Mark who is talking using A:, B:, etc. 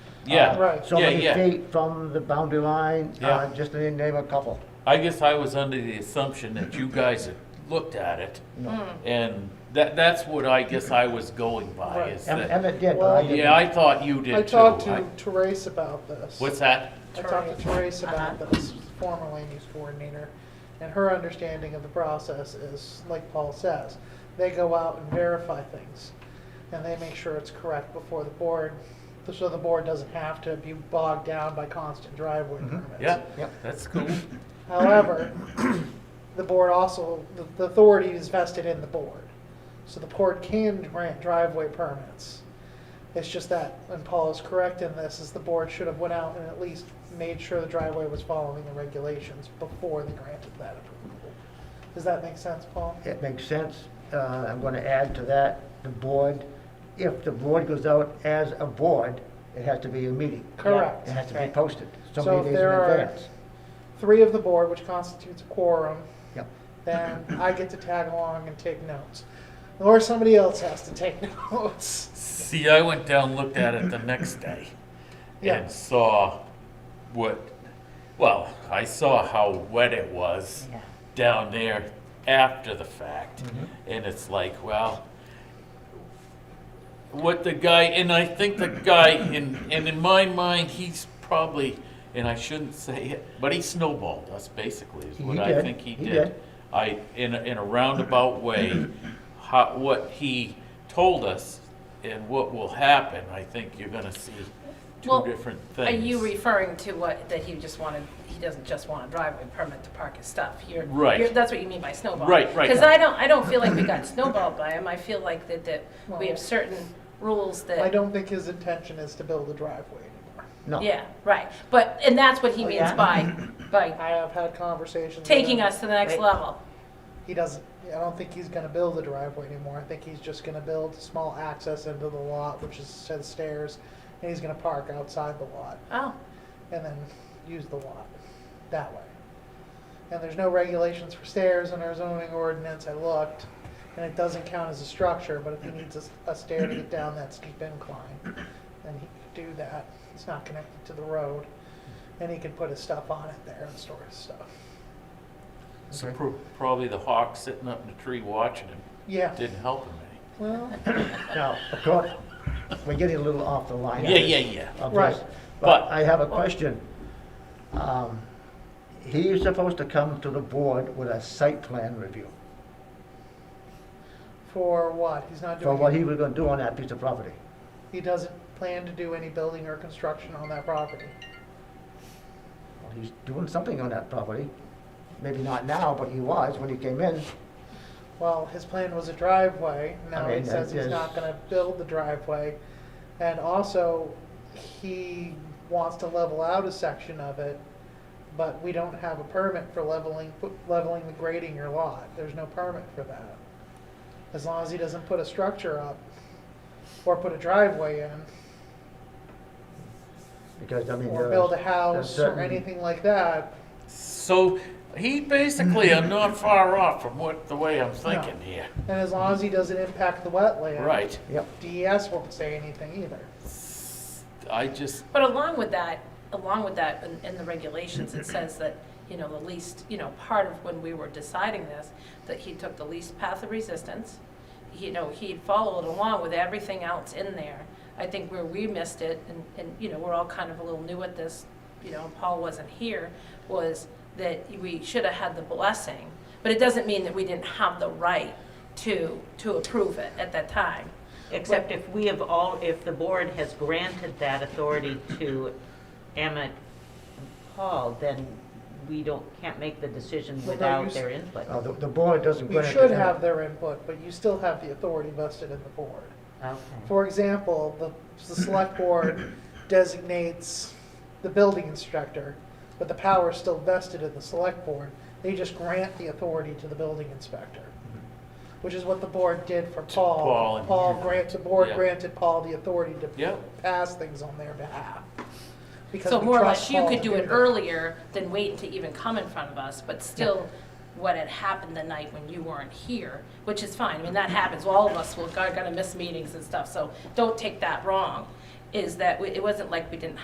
A: Yeah.
B: Right.
C: Uh, So
A: yeah,
C: many
A: yeah.
C: feet from the boundary line,
A: Yeah.
C: uh, just to name a couple.
A: I guess I was under the assumption that you guys had looked at it,
B: Hmm.
A: and that, that's what I guess I was going by,
B: Right.
A: is
C: Em-
A: that,
C: Emmett did, but I
B: Well-
C: didn't.
A: yeah, I thought you did too.
B: I talked
A: I-
B: to Therese about this.
A: What's that?
B: I talked to Therese about
D: Uh-huh.
B: this, former land use coordinator, and her understanding of the process is, like Paul says, they go out and verify things, and they make sure it's correct before the board, so the board doesn't have to be bogged down by constant driveway permits.
A: Mm-hmm. Yeah,
C: Yep.
A: that's cool.
B: However, the board also, the- the authority is vested in the board. So the board can grant driveway permits. It's just that, and Paul is correct in this, is the board should have went out and at least made sure the driveway was following the regulations before they granted that approval. Does that make sense, Paul?
C: It makes sense. Uh, I'm going to add to that, the board, if the board goes out as a board, it has to be a meeting.
B: Correct.
C: It has to be
B: Right.
C: posted, so
B: So
C: many
B: if
C: days in
B: there are-
C: advance.
B: Three of the board, which constitutes a quorum,
C: Yep.
B: then I get to tag along and take notes. Or somebody else has to take notes.
A: See, I went down, looked at it the next day,
B: Yeah.
A: and saw what, well, I saw how wet it was
D: Yeah.
A: down there after the fact. And it's like, well, what the guy, and I think the guy, in, and in my mind, he's probably, and I shouldn't say it, but he snowballed us basically, is
C: He
A: what I
C: did.
A: think he
C: He
A: did.
C: did.
A: I, in a, in a roundabout way, how, what he told us and what will happen, I think you're gonna see two
D: Well,
A: different
D: Are
A: things.
D: you referring to what, that he just wanted, he doesn't just want a driveway permit to park his stuff? You're-
A: Right.
D: you're- That's what you mean by snowball?
A: Right, right.
D: Because I don't, I don't feel like we got snowballed by him. I feel like that, that we
B: Well-
D: have certain rules that.
B: I don't think his intention is to build a driveway anymore.
C: No.
D: Yeah, right. But, and that's what he
B: Oh,
D: means
B: yeah?
D: by, by
B: I have had conversations. with
D: taking
B: him.
D: us to the next
C: Right.
D: level.
B: He doesn't, I don't think he's gonna build a driveway anymore. I think he's just gonna build small access into the lot, which is has stairs, and he's gonna park outside the lot
D: Oh,
B: and then use the lot that way. And there's no regulations for stairs in our zoning ordinance. I looked, and it doesn't count as a structure, but if he needs a, s- a stair to get down that steep incline, then he could do that. It's not connected to the road, and he could put his stuff on it there and store his stuff.
A: So pro- Probably the hawk sitting up in the tree watching him,
B: Yeah.
A: didn't help him any.
B: Well,
C: Now, of course, we're getting a little off the line.
A: Yeah, yeah, yeah.
C: of
B: Right.
C: this,
A: But-
C: But I have a question. Um, He's supposed to come to the board with a site plan review
B: for what? He's not
C: for
B: doing.
C: what he was going to do on that piece of property.
B: He doesn't plan to do any building or construction on that property.
C: Well, He's doing something on that property. Maybe not now, but he was when he came in.
B: Well, his plan was a driveway. Now
C: Okay,
B: he says
C: that
B: he's
C: is-
B: not going to build the driveway, and also he wants to level out a section of it, but we don't have a permit for leveling leveling the grading your lot. There's no permit for that. As long as he doesn't put a structure up or put a driveway in,
C: Because, I mean.
B: or
C: there's-
B: build a
C: there's
B: house or
C: certain-
B: anything like that.
A: So he basically are not far off from what, the way I'm thinking here.
B: And as long as he doesn't impact the wetland.
A: Right.
C: Yep.
B: DES won't say anything either.
A: I just,
D: But along with that, along with that, in, in the regulations, it says that, you know, the least, you know, part of when we were deciding this, that he took the least path of resistance. You know, he followed along with everything else in there. I think where we missed it, and, and, you know, we're all kind of a little new at this, you know, and Paul wasn't here, was that we should have had the blessing. But it doesn't mean that we didn't have the right to, to approve it at that time.
E: Except if we have all, if the board has granted that authority to Emmett and Paul, then we don't, can't make the decision
B: Well, no, you
E: without
B: s-
E: their input.
C: Uh, The the board doesn't.
B: You
C: grant it to
B: should
C: them.
B: have their input, but you still have the authority vested in the board.
E: Okay.
B: For example, the, the select board designates the building inspector, but the power is still vested in the select board. They just grant the authority to the building inspector, which is what the board did for
A: Paul
B: Paul.
A: and-
B: Paul grants, the board
A: Yeah.
B: granted Paul the authority
A: Yeah.
B: to pass things on their behalf. because
D: So
B: we
D: more or
B: trust
D: less, you
B: Paul
D: could
B: to
D: do it
B: that.
D: earlier than wait to even come in front of us, but still, what had happened the night when you weren't here, which is fine, I mean, that happens, all of us will, are gonna miss meetings and stuff, so don't take that wrong. is that we- it wasn't like we didn't